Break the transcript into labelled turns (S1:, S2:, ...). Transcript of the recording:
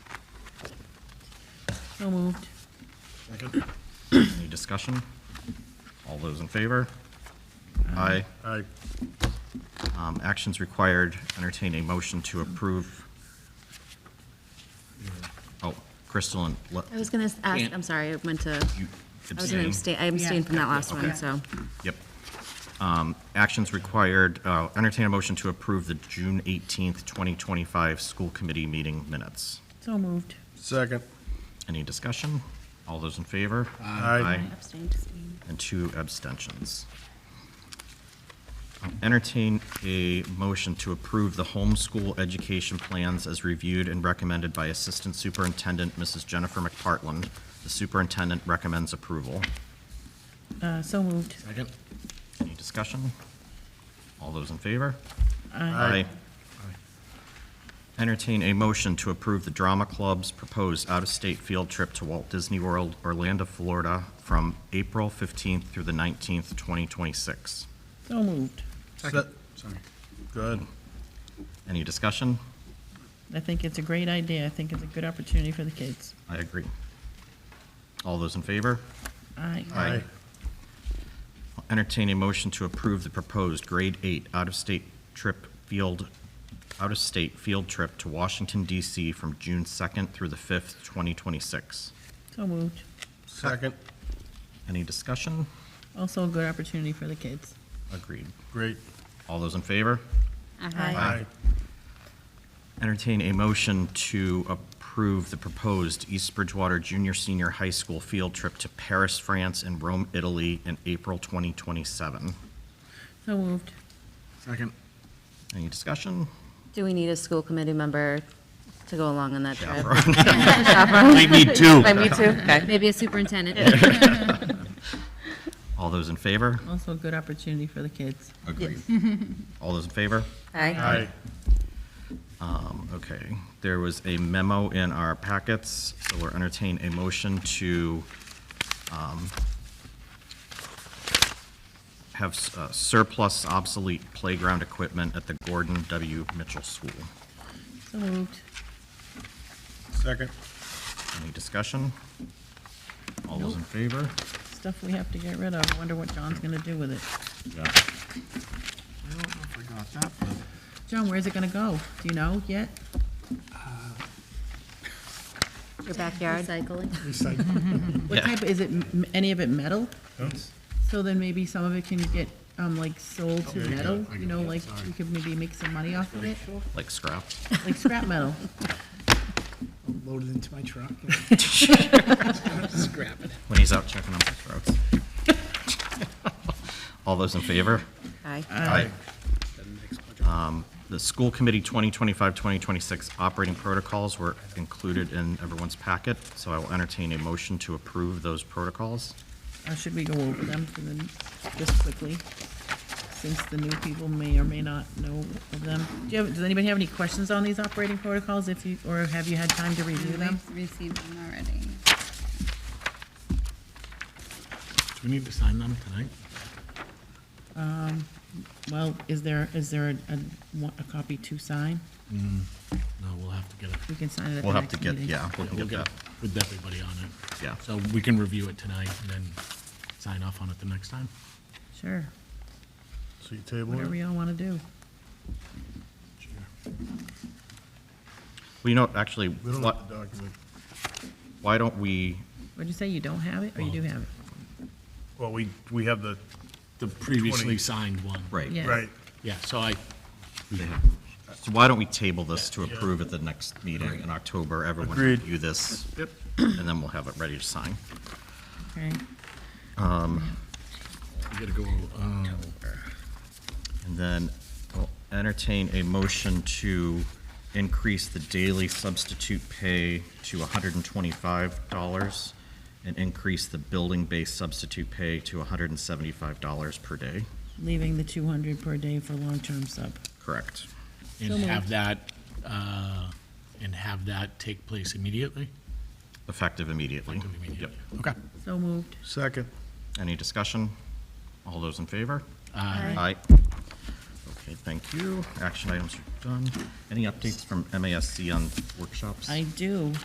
S1: So moved.
S2: Second.
S3: Any discussion? All those in favor? Aye.
S2: Aye.
S3: Um, Actions required, entertain a motion to approve. Oh, Crystal and. Le-
S4: I was going to ask,
S1: Can't.
S4: I'm sorry, I meant to,
S3: you
S4: I was going to
S3: abstain.
S4: abstain, I abstained from that last
S3: Okay.
S4: one, so.
S3: Yep. Um, Actions required, uh, entertain a motion to approve the June 18th, 2025 school committee meeting minutes.
S1: So moved.
S2: Second.
S3: Any discussion? All those in favor?
S2: Aye.
S4: Abstained.
S3: and two abstentions. Entertain a motion to approve the homeschool education plans as reviewed and recommended by Assistant Superintendent Mrs. Jennifer McPartland. The superintendent recommends approval.
S1: Uh, So moved.
S2: Second.
S3: Any discussion? All those in favor?
S2: Aye.
S3: Entertain a motion to approve the Drama Club's proposed out-of-state field trip to Walt Disney World, Orlando, Florida, from April 15th through the 19th, 2026.
S1: So moved.
S2: Second. Sorry. Good.
S3: Any discussion?
S1: I think it's a great idea. I think it's a good opportunity for the kids.
S3: I agree. All those in favor?
S1: Aye.
S3: Aye. I'll Entertain a motion to approve the proposed grade eight out-of-state trip field, out-of-state field trip to Washington DC from June second through the fifth, twenty twenty-six.
S1: So moved.
S2: Second.
S3: Any discussion?
S1: Also a good opportunity for the kids.
S3: Agreed.
S2: Great.
S3: All those in favor?
S4: Aye.
S3: Aye. Entertain a motion to approve the proposed East Bridgewater Junior Senior High School field trip to Paris, France, and Rome, Italy in April twenty twenty-seven.
S1: So moved.
S2: Second.
S3: Any discussion?
S4: Do we need a school committee member to go along on that trip?
S3: We need two.
S4: I need to. Maybe a superintendent.
S3: All those in favor?
S1: Also a good opportunity for the kids.
S3: Agreed. All those in favor?
S4: Aye.
S2: Aye.
S3: Um, Okay, there was a memo in our packets, so we're entertaining a motion to um, have s- uh, surplus obsolete playground equipment at the Gordon W. Mitchell School.
S1: So moved.
S2: Second.
S3: Any discussion? All those in favor?
S1: Stuff we have to get rid of. I Wonder what John's going to do with it.
S3: Yeah.
S2: I don't know if I got that, but
S1: John, where's it going to go? Do you know yet?
S4: Your backyard. Recycling.
S2: recycle.
S1: What
S3: Yeah.
S1: type, is it, m- any of it metal? So then maybe some of it can get, um, like sold to
S2: Oh, there you
S1: metal,
S2: go. I
S1: you
S2: got
S1: know,
S2: it.
S1: like,
S2: Sorry.
S1: we could maybe make some money off of it,
S3: Like scrap?
S1: like scrap metal.
S5: loaded into my truck. Scrap it.
S3: When he's out checking on the throats. All those in favor?
S4: Aye.
S3: Um, The school committee 2025, 2026 operating protocols were included in everyone's packet, so I will entertain a motion to approve those protocols.
S1: Uh, should we go over them for the, just quickly? Since the new people may or may not know of them. Do you have, does anybody have any questions on these operating protocols if you, or have you had time to review them?
S6: We've received them already.
S5: Do we need to sign them tonight?
S1: Um, Well, is there, is there a, a, one- a copy to sign?
S5: No, we'll have to get it.
S1: We can sign it at the
S3: We'll have
S1: next
S3: to get,
S1: meeting.
S3: yeah, we'll
S5: We'll
S3: get
S5: get
S3: that.
S5: it with everybody on it.
S3: Yeah.
S5: So we can review it tonight and then sign off on it the next time.
S1: Sure,
S2: So you table
S1: whatever
S2: it?
S1: y'all wanna do.
S3: Well, you know, actually,
S2: We don't
S3: why
S2: have the document.
S3: why don't we,
S1: What'd you say, you don't have it, or you do have it?
S2: Well, we, we have the,
S5: The previously signed one.
S3: right,
S1: Yeah.
S2: right.
S5: Yeah, so I,
S3: so why don't we table this to approve at the next meeting in October? Everyone
S2: Agreed.
S3: review this, and then we'll have it ready to sign.
S1: Okay,
S5: we gotta go, um,
S3: And then I'll entertain a motion to increase the daily substitute pay to hundred and twenty-five dollars and increase the building-based substitute pay to hundred and seventy-five dollars per day.
S1: leaving the two hundred per day for long-term sub.
S3: Correct.
S1: So
S5: and
S1: moved.
S5: have that, uh, and have that take place immediately?
S3: Effective immediately.
S5: Effective immediately.
S3: Yep.
S5: Okay.
S1: So moved.
S2: Second.
S3: Any discussion? All those in favor?
S5: Uh,
S3: Aye. Okay, thank you. Action items are done. Any updates from MASC on workshops?
S1: I do.